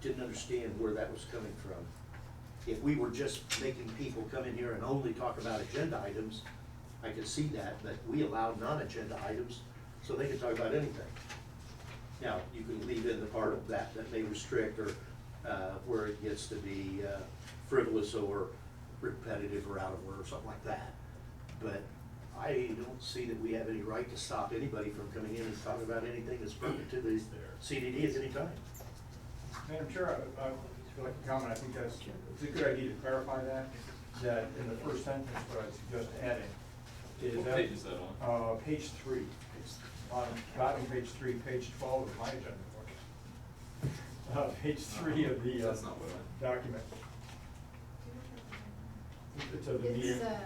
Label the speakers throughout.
Speaker 1: didn't understand where that was coming from. If we were just making people come in here and only talk about agenda items, I could see that, but we allowed non-agenda items, so they could talk about anything. Now, you can leave in the part of that that may restrict or uh, where it gets to be uh, frivolous or repetitive or out of order or something like that. But I don't see that we have any right to stop anybody from coming in and talking about anything that's pertinent to the CDD at any time.
Speaker 2: Madam Chair, I- I would like to comment, I think that's, it's a good idea to clarify that, that in the first sentence, what I suggest adding is that.
Speaker 3: What page is that on?
Speaker 2: Uh, page three, bottom, bottom page three, page twelve of my agenda. Uh, page three of the. uh,
Speaker 3: That's not what I-
Speaker 2: Document. It's of the
Speaker 4: It's,
Speaker 2: meeting,
Speaker 4: uh,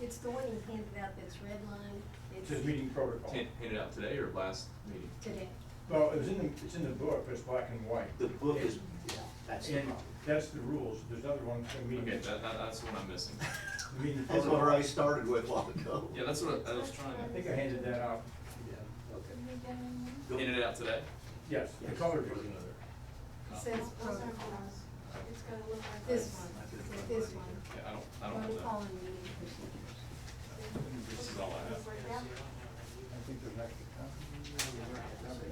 Speaker 4: It's the one you handed out that's redlined.
Speaker 2: it
Speaker 4: It's
Speaker 2: says meeting protocol.
Speaker 3: Hand- Handed out today or last meeting?
Speaker 4: Today.
Speaker 2: Well, it was in, the- it's in the book, but it's black and white.
Speaker 1: The book is, yeah, that's the
Speaker 2: And
Speaker 1: problem.
Speaker 2: that's the rules, there's another one, for meeting.
Speaker 3: Okay, that, that, that's what I'm missing.
Speaker 2: meeting
Speaker 1: That's
Speaker 2: protocol.
Speaker 1: where I started with long ago.
Speaker 3: Yeah, that's what I, I was
Speaker 2: I
Speaker 3: trying
Speaker 2: think I handed that out.
Speaker 1: Yeah, okay.
Speaker 3: to,
Speaker 1: Go-
Speaker 3: handed it out today?
Speaker 2: Yes, the color version of it.
Speaker 4: It says protocols. This one, with this one.
Speaker 3: Yeah, I don't, I don't know
Speaker 4: Protocol
Speaker 3: that.
Speaker 4: and meeting procedures.
Speaker 3: This is all I have.
Speaker 2: I think there's an extra copy.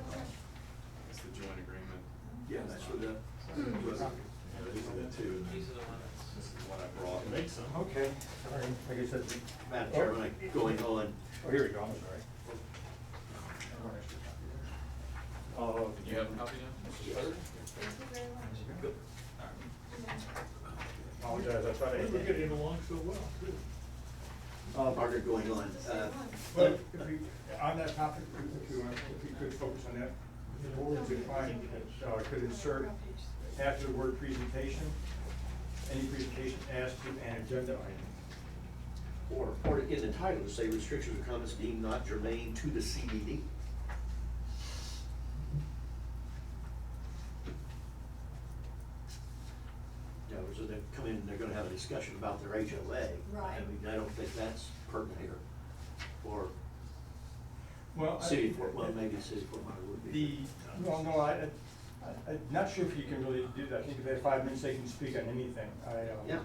Speaker 3: It's the joint agreement.
Speaker 1: Yeah, that's where
Speaker 3: uh,
Speaker 1: the.
Speaker 3: Hmm.
Speaker 5: These are the two.
Speaker 6: These are the ones.
Speaker 3: This is what I brought.
Speaker 5: Makes sense.
Speaker 2: Okay, all right, like I said,
Speaker 1: Madam Chairman, I'm going on.
Speaker 2: oh, here we go, I'm sorry. One extra copy there. Uh,
Speaker 3: Do you have a copy now? Third?
Speaker 4: Thank you very much.
Speaker 1: Go-
Speaker 2: Apologize, I thought I
Speaker 5: We're
Speaker 2: had.
Speaker 5: getting along so well, too.
Speaker 2: Uh,
Speaker 1: Margaret, going on.
Speaker 4: It's the
Speaker 1: uh,
Speaker 4: same one.
Speaker 2: But if you, on that topic, if you, want- if you could focus on that, the board could find, uh, could insert after the word presentation, any presentation as to an agenda item.
Speaker 1: Or, or in the title, say restrictions or comments deemed not germane to the CDD. Yeah, so they come in, they're gonna have a discussion about their HOA. I
Speaker 4: Right.
Speaker 1: mean, I don't think that's pertinent here. Or
Speaker 2: Well, I-
Speaker 1: city, of Fort- well, maybe the city of Fort Myers would
Speaker 2: The,
Speaker 1: be. Uh,
Speaker 2: well, no, I, I- I'm not sure if you can really do that. I think if they have five minutes, they can speak on anything. I, uh,
Speaker 1: Yeah.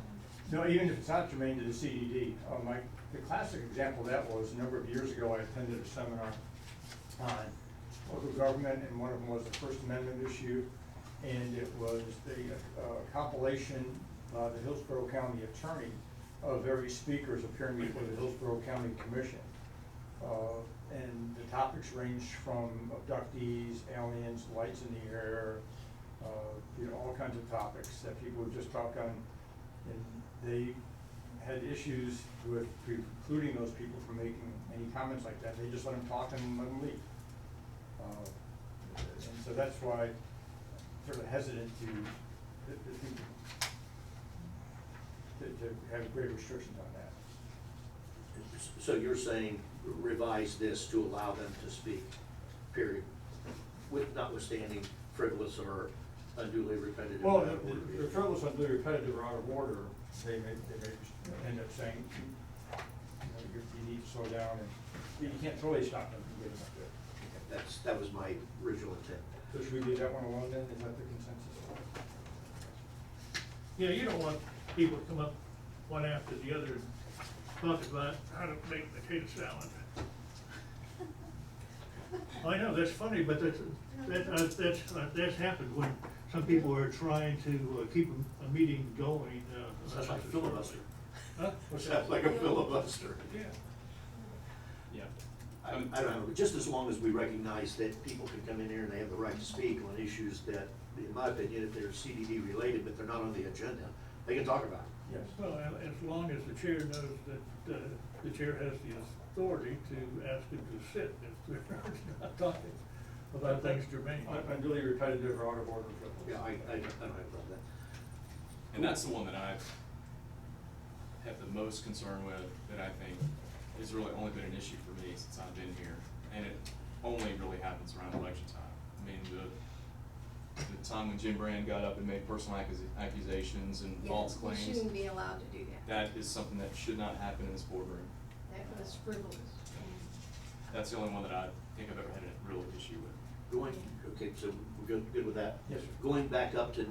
Speaker 2: No, even if it's not germane to the CDD, uh, my, the classic example of that was, a number of years ago, I attended a seminar on local government, and one of them was the First Amendment issue, and it was the uh, compilation by the Hillsborough County Attorney of every speaker's appearing before the Hillsborough County Commission. Uh, And the topics ranged from abductees, aliens, lights in the air, uh, you know, all kinds of topics that people would just talk on. And they had issues with precluding those people from making any comments like that. They just let them talk and let them leave. Uh, And so that's why I'm sort of hesitant to, to, to- to have great restrictions on that.
Speaker 1: So you're saying revise this to allow them to speak, period, with notwithstanding frivolous or unduly repetitive.
Speaker 2: Well, the frivolous and really repetitive or out of order, they may, they may just end up saying, you know, you you need to slow down and, you can't totally stop them from getting up there.
Speaker 1: That's, that was my original intent.
Speaker 2: So should we leave that one alone then, is that the consensus?
Speaker 5: You know, you don't want people to come up one after the other and talk about how to make potato salad. I know, that's funny, but that's, that, uh, that's, uh, that's happened when some people are trying to uh, keep a- a meeting going. uh,
Speaker 1: Sounds like a filibuster.
Speaker 5: Huh?
Speaker 1: Sounds like a filibuster.
Speaker 5: Yeah.
Speaker 3: Yeah.
Speaker 1: I, I don't know, just as long as we recognize that people can come in here and they have the right to speak on issues that, in my opinion, if they're CDD related, but they're not on the agenda, they can talk about it.
Speaker 2: Yes.
Speaker 6: Well, a- as long as the chair knows that uh, the chair has the authority to ask him to sit if they're not talking about things germane.
Speaker 2: Un- Unduly repetitive or out of order frivolous.
Speaker 1: Yeah, I, I don't I don't have a problem with that.
Speaker 3: And that's the one that I have the most concern with, that I think has really only been an issue for me since I've been here. And it only really happens around election time. I mean, the, the time when Jim Brand got up and made personal accus- accusations and
Speaker 4: Yeah,
Speaker 3: false
Speaker 4: We
Speaker 3: claims.
Speaker 4: shouldn't be allowed to do that.
Speaker 3: That is something that should not happen in this boardroom.
Speaker 4: That was frivolous.
Speaker 3: That's the only one that I think I've ever had a real issue with.
Speaker 1: Going, okay, so we're good, good with that?
Speaker 2: Yes, sir.
Speaker 1: Going back up to